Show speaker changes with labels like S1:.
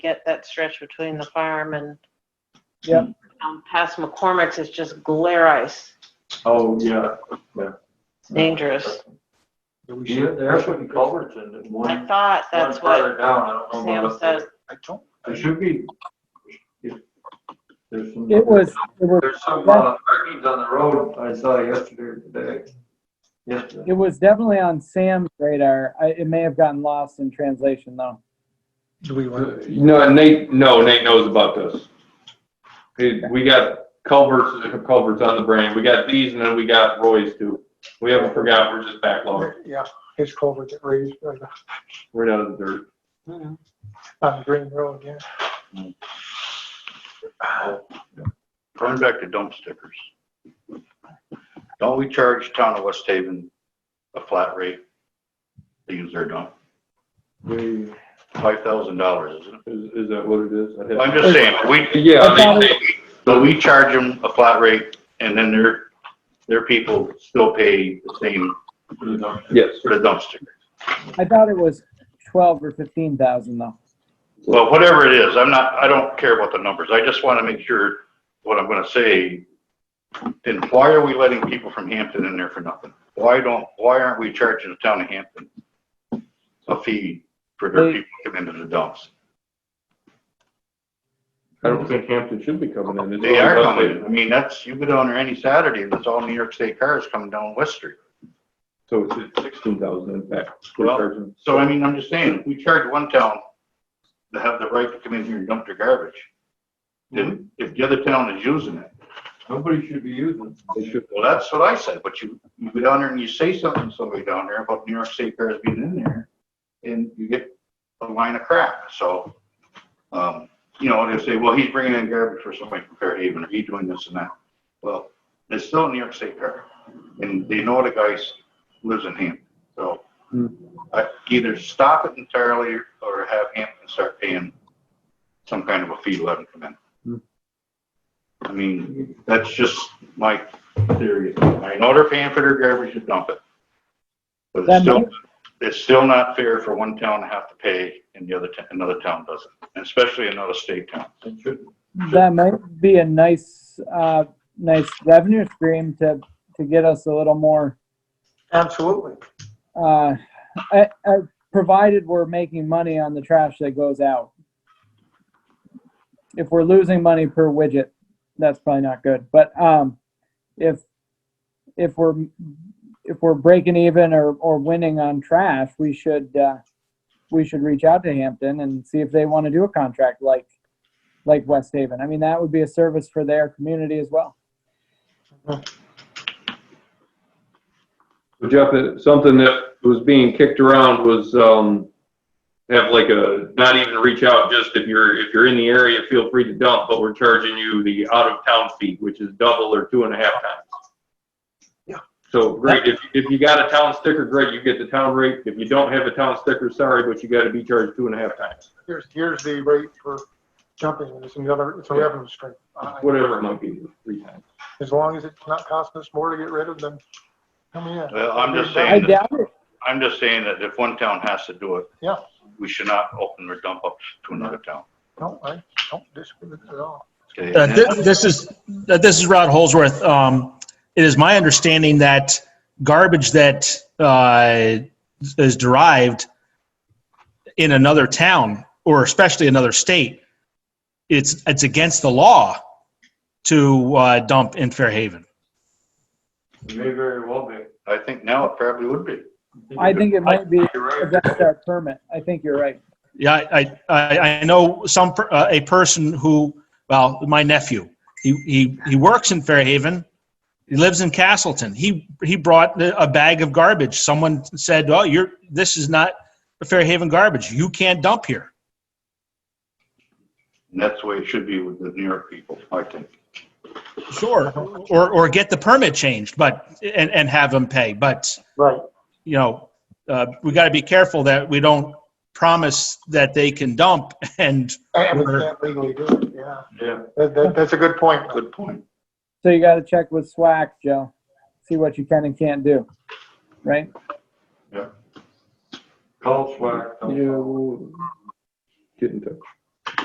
S1: get that stretch between the farm and
S2: Yep.
S1: um, past McCormick's is just glare ice.
S3: Oh, yeah.
S1: It's dangerous.
S2: We
S3: Yeah,
S2: should,
S3: they're putting culverts in it,
S1: I
S3: one,
S1: thought
S3: one
S1: that's what
S3: further down, I don't know.
S1: Sam
S3: about
S1: said.
S2: I don't,
S3: There should be. if- There's some.
S4: It was, it was,
S3: There's some, uh, markings on the road I saw yesterday, or today. Yesterday.
S4: it was definitely on Sam's radar. I, it may have gotten lost in translation though.
S2: do we want,
S5: No, Nate, no, Nate knows about this. Hey, We got culverts, culverts on the brain. We got these and then we got Roy's too. We haven't forgot, we're just backlogged.
S2: yeah, his culvert that raised on the-
S5: Right out of the dirt.
S1: Mhm.
S2: on the Green Road, yeah.
S6: Going back to dump stickers. Don't we charge town of West Haven a flat rate to use their dump?
S5: We-
S6: Five thousand dollars, isn't
S5: Is, is that what it is? I'd
S6: it?
S5: have-
S6: I'm just saying, we,
S5: Yeah,
S4: I
S5: I
S4: thought
S5: mean,
S4: it-
S6: so we charge them a flat rate and then their, their people still pay the same
S5: yes.
S6: for the dump sticker.
S4: I thought it was twelve or fifteen thousand though.
S6: Well, whatever it is, I'm not, I don't care about the numbers. I just want to make sure what I'm going to say. Then why are we letting people from Hampton in there for nothing? Why don't, why aren't we charging the town of Hampton a fee for their
S4: They-
S6: people coming into the dumps?
S5: I don't think Hampton should be coming in. It's
S6: They
S5: all
S6: are
S5: about
S6: coming. in.
S5: it.
S6: I mean, that's, you go down there any Saturday and it's all New York State cars coming down West Street.
S5: So it's at sixteen thousand in fact. We're
S6: Well,
S5: charging-
S6: So I mean, I'm just saying, if we charge one town to have the right to come in here and dump their garbage, then if the other town is using it,
S3: Nobody should be using.
S5: They should,
S6: Well, that's what I said, but you, you go down there and you say something to somebody down there about New York State Fair being in there, and you get a line of crap, so, um, you know, they say, well, he's bringing in garbage for somebody from Fairhaven, or he's doing this and that. Well, it's still New York State Fair, and they know the guy lives in Hampton, so.
S5: Hmm.
S6: I either stop it entirely, or have Hampton start paying some kind of a fee to let him come
S5: Hmm.
S6: in. I mean, that's just my theory. I know they're paying for their garbage to dump it. But it's
S4: That
S6: still,
S4: might-
S6: it's still not fair for one town to have to pay and the other, t- another town doesn't, and especially another state town.
S3: It should,
S4: That might be a nice, uh, nice revenue stream to, to get us a little more,
S2: Absolutely.
S4: uh, I, I, provided we're making money on the trash that goes out. If we're losing money per widget, that's probably not good, but, um, if, if we're, if we're breaking even or, or winning on trash, we should, uh, we should reach out to Hampton and see if they want to do a contract like, like West Haven. I mean, that would be a service for their community as well.
S5: But Jeff, it- something that was being kicked around was, um, have like a, not even reach out, just if you're, if you're in the area, feel free to dump, but we're charging you the out of town fee, which is double or two and a half times.
S2: Yeah.
S5: So, great, if, if you got a town sticker, great, you get the town rate. If you don't have a town sticker, sorry, but you gotta be charged two and a half times,
S2: Here's, here's the rate for jumping, and it's another, it's a revenue stream. I-
S5: whatever it might be, three times.
S2: As long as it's not costing us more to get rid of them, I mean, yeah.
S6: Well, I'm just
S4: I
S6: saying, that-
S4: doubt it.
S6: I'm just saying that if one town has to do it.
S2: Yeah.
S6: We should not open their dump ups to another town,
S2: No, I don't disagree with it at all.
S6: okay?
S7: Uh, thi- This is, uh, this is Rod Holsworth. Um, It is my understanding that garbage that uh, is derived in another town, or especially another state, it's, it's against the law to uh, dump in Fairhaven.
S3: it may very well be.
S6: I think now it probably would be.
S4: I think it might be
S3: You're right.
S4: against our permit. I think you're right.
S7: Yeah, I, I, I know some, per- uh, a person who, well, my nephew, he, he, he works in Fairhaven. He lives in Castleton. He, he brought the- a bag of garbage. Someone said, oh, you're, this is not Fairhaven garbage. You can't dump here.
S6: And that's the way it should be with the New York people, I think.
S7: Sure. Or, or get the permit changed, but, and, and have them pay. But,
S2: Right.
S7: you know, uh, we got to be careful that we don't promise that they can dump and
S2: And we can't legally do it, yeah.
S3: Yeah.
S2: That, that, that's a good point.
S6: Good point.
S4: So you got to check with SWAC, Joe. See what you can and can't do. Right?
S3: Call swag.
S5: You, get in touch.